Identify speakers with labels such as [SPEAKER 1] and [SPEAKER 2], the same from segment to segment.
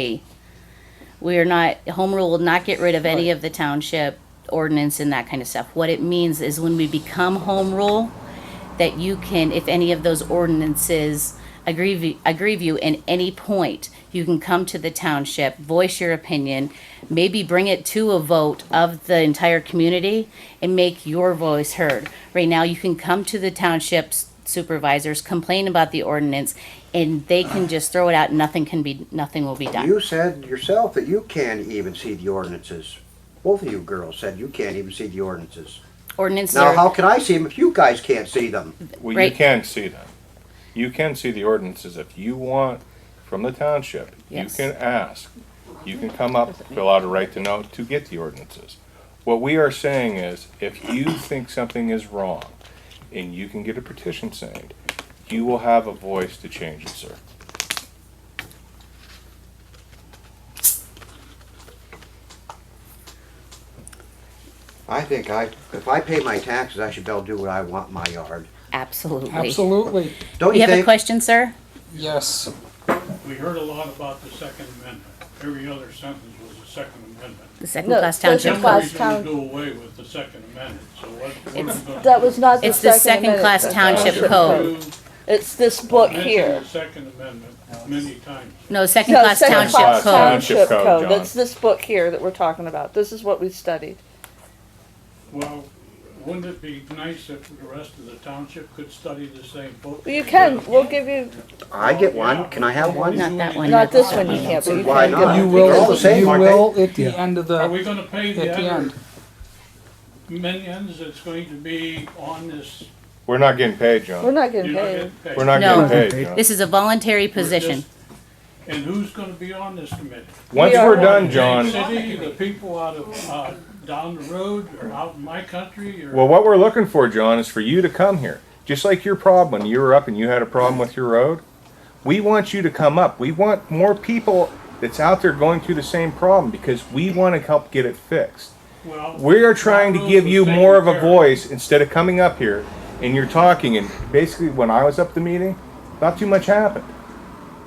[SPEAKER 1] be. We are not, home rule will not get rid of any of the township ordinance and that kind of stuff. What it means is when we become home rule, that you can, if any of those ordinances aggrieve, you- aggrieve you in any point, you can come to the township, voice your opinion, maybe bring it to a vote of the entire community and make your voice heard. Right now, you can come to the township's supervisors, complain about the ordinance, and they can just throw it out, nothing can be, nothing will be done.
[SPEAKER 2] You said yourself that you can't even see the ordinances. Both of you girls said you can't even see the ordinances.
[SPEAKER 1] Ordinance
[SPEAKER 2] Now, how
[SPEAKER 1] are,
[SPEAKER 2] can I see them if you guys can't see them?
[SPEAKER 3] Well,
[SPEAKER 1] Right.
[SPEAKER 3] you can see them. You can see the ordinances if you want from the township.
[SPEAKER 1] Yes.
[SPEAKER 3] You can ask. You can come up, fill out a right to know to get the ordinances. What we are saying is, if you think something is wrong, and you can get a petition signed, you will have a voice to change it, sir.
[SPEAKER 2] I think I, if I pay my taxes, I should be able to do what I want in my yard.
[SPEAKER 1] absolutely.
[SPEAKER 4] Absolutely,
[SPEAKER 2] Don't
[SPEAKER 1] You
[SPEAKER 2] you
[SPEAKER 1] have a
[SPEAKER 2] think?
[SPEAKER 1] question, sir?
[SPEAKER 4] yes.
[SPEAKER 5] We heard a lot about the Second Amendment. Every other sentence was the Second Amendment.
[SPEAKER 1] The second
[SPEAKER 6] No,
[SPEAKER 1] class
[SPEAKER 6] first
[SPEAKER 1] township.
[SPEAKER 6] class.
[SPEAKER 5] Somebody's gonna
[SPEAKER 6] town-
[SPEAKER 5] do away with the Second Amendment, so what, what are we gonna?
[SPEAKER 6] That was not the
[SPEAKER 1] It's the
[SPEAKER 6] second
[SPEAKER 1] second
[SPEAKER 6] amendment.
[SPEAKER 1] class township
[SPEAKER 6] Township
[SPEAKER 1] code.
[SPEAKER 6] It's this book
[SPEAKER 5] Mentioned
[SPEAKER 6] here.
[SPEAKER 5] the Second Amendment many times.
[SPEAKER 1] No, second
[SPEAKER 6] No,
[SPEAKER 1] class
[SPEAKER 6] second
[SPEAKER 1] township
[SPEAKER 6] class
[SPEAKER 1] code.
[SPEAKER 3] Township
[SPEAKER 6] township
[SPEAKER 3] code,
[SPEAKER 6] code.
[SPEAKER 3] John.
[SPEAKER 6] That's this book here that we're talking about. This is what we studied.
[SPEAKER 5] Well, wouldn't it be nice if the rest of the township could study the same book?
[SPEAKER 6] You can, we'll give you,
[SPEAKER 2] I get one, can I have one?
[SPEAKER 1] Not that one.
[SPEAKER 6] not this one you can't, but you
[SPEAKER 2] Why
[SPEAKER 6] can
[SPEAKER 2] not?
[SPEAKER 6] get
[SPEAKER 4] You
[SPEAKER 2] They're all the
[SPEAKER 4] will,
[SPEAKER 2] same,
[SPEAKER 4] you
[SPEAKER 2] aren't
[SPEAKER 4] will at the end of the,
[SPEAKER 5] Are we gonna pay
[SPEAKER 4] at
[SPEAKER 5] the
[SPEAKER 4] the
[SPEAKER 5] other
[SPEAKER 4] end.
[SPEAKER 5] minions that's going to be on this?
[SPEAKER 3] We're not getting paid,
[SPEAKER 6] We're
[SPEAKER 3] John.
[SPEAKER 6] not
[SPEAKER 5] you're
[SPEAKER 6] getting
[SPEAKER 5] not
[SPEAKER 6] paid.
[SPEAKER 5] getting paid.
[SPEAKER 3] We're not
[SPEAKER 1] No.
[SPEAKER 3] getting paid, John.
[SPEAKER 1] This is a voluntary
[SPEAKER 5] We're just-
[SPEAKER 1] position.
[SPEAKER 5] And who's gonna be on this committee?
[SPEAKER 3] Once
[SPEAKER 6] We are
[SPEAKER 3] we're done,
[SPEAKER 5] Big
[SPEAKER 3] John,
[SPEAKER 5] City, the people out of, uh, down the road or out in my country or?
[SPEAKER 3] well, what we're looking for, John, is for you to come here. Just like your problem, when you were up and you had a problem with your road, we want you to come up. We want more people that's out there going through the same problem because we want to help get it fixed.
[SPEAKER 5] Well,
[SPEAKER 3] We are trying to
[SPEAKER 5] Bob
[SPEAKER 3] give
[SPEAKER 5] Rose
[SPEAKER 3] you
[SPEAKER 5] was
[SPEAKER 3] more of
[SPEAKER 5] taken
[SPEAKER 3] a
[SPEAKER 5] care
[SPEAKER 3] voice instead of coming up here and you're talking and basically when I was up at the meeting, not too much happened.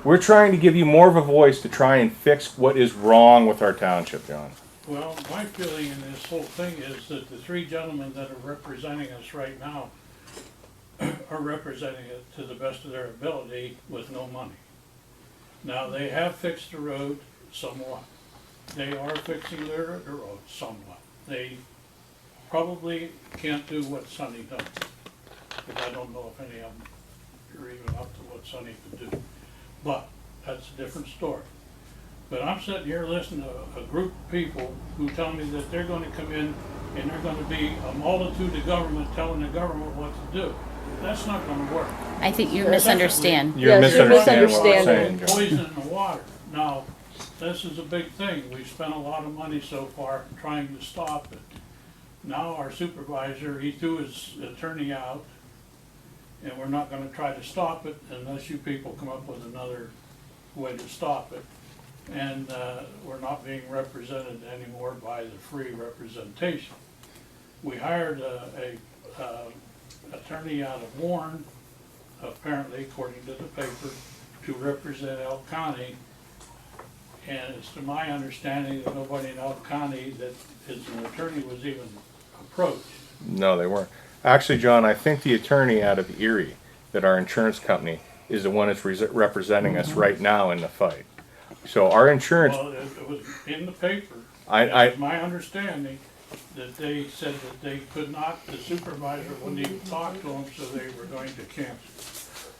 [SPEAKER 3] We're trying to give you more of a voice to try and fix what is wrong with our township, John.
[SPEAKER 5] Well, my feeling in this whole thing is that the three gentlemen that are representing us right now are representing it to the best of their ability with no money. Now, they have fixed the road somewhat. They are fixing their, the road somewhat. They probably can't do what Sonny does. But I don't know if any of them are even up to what Sonny could do. But that's a different story. But I'm sitting here listening to a group of people who tell me that they're gonna come in and they're gonna be a multitude of government telling the government what to do. That's not gonna work.
[SPEAKER 1] I think you misunderstand.
[SPEAKER 3] You're
[SPEAKER 6] Yes, you're
[SPEAKER 3] misunderstanding what we're saying,
[SPEAKER 6] misunderstanding.
[SPEAKER 3] John.
[SPEAKER 5] Poison in the water. Now, this is a big thing. We've spent a lot of money so far trying to stop it. Now our supervisor, he threw his attorney out and we're not gonna try to stop it unless you people come up with another way to stop it. And, uh, we're not being represented anymore by the free representation. We hired a, a, uh, attorney out of Warren, apparently according to the paper, to represent Elk County. And it's to my understanding that nobody in Elk County that is an attorney was even approached.
[SPEAKER 3] No, they weren't. Actually, John, I think the attorney out of Erie, that our insurance company, is the one that's re- representing us right now in the fight. So our insurance,
[SPEAKER 5] Well, it it was in the paper.
[SPEAKER 3] I- I-
[SPEAKER 5] It's my understanding that they said that they could not, the supervisor wouldn't even talk to them, so they were going to cancel.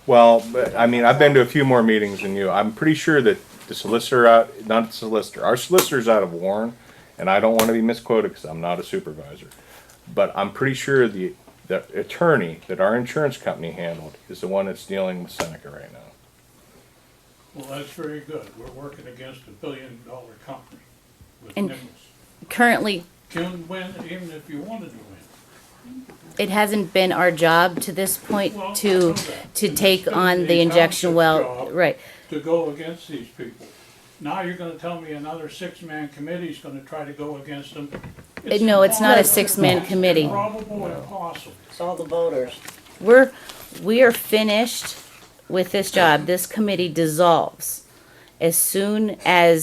[SPEAKER 3] well, but, I mean, I've been to a few more meetings than you. I'm pretty sure that the solicitor out, not the solicitor, our solicitor's out of Warren, and I don't want to be misquoted because I'm not a supervisor. But I'm pretty sure the, the attorney that our insurance company handled is the one that's dealing with Seneca right now.
[SPEAKER 5] Well, that's very good. We're working against a billion dollar company with
[SPEAKER 1] And-
[SPEAKER 5] Nichols.
[SPEAKER 1] Currently,
[SPEAKER 5] Can win even if you wanted to win.
[SPEAKER 1] it hasn't been our job to this point to, to take on the injection well, right.
[SPEAKER 5] to go against these people. Now you're gonna tell me another six-man committee's gonna try to go against them?
[SPEAKER 1] No, it's not a
[SPEAKER 5] impossible.
[SPEAKER 1] six-man
[SPEAKER 5] It's
[SPEAKER 1] committee.
[SPEAKER 5] Probable impossible.
[SPEAKER 1] We're, we are finished with this job. This committee dissolves as soon as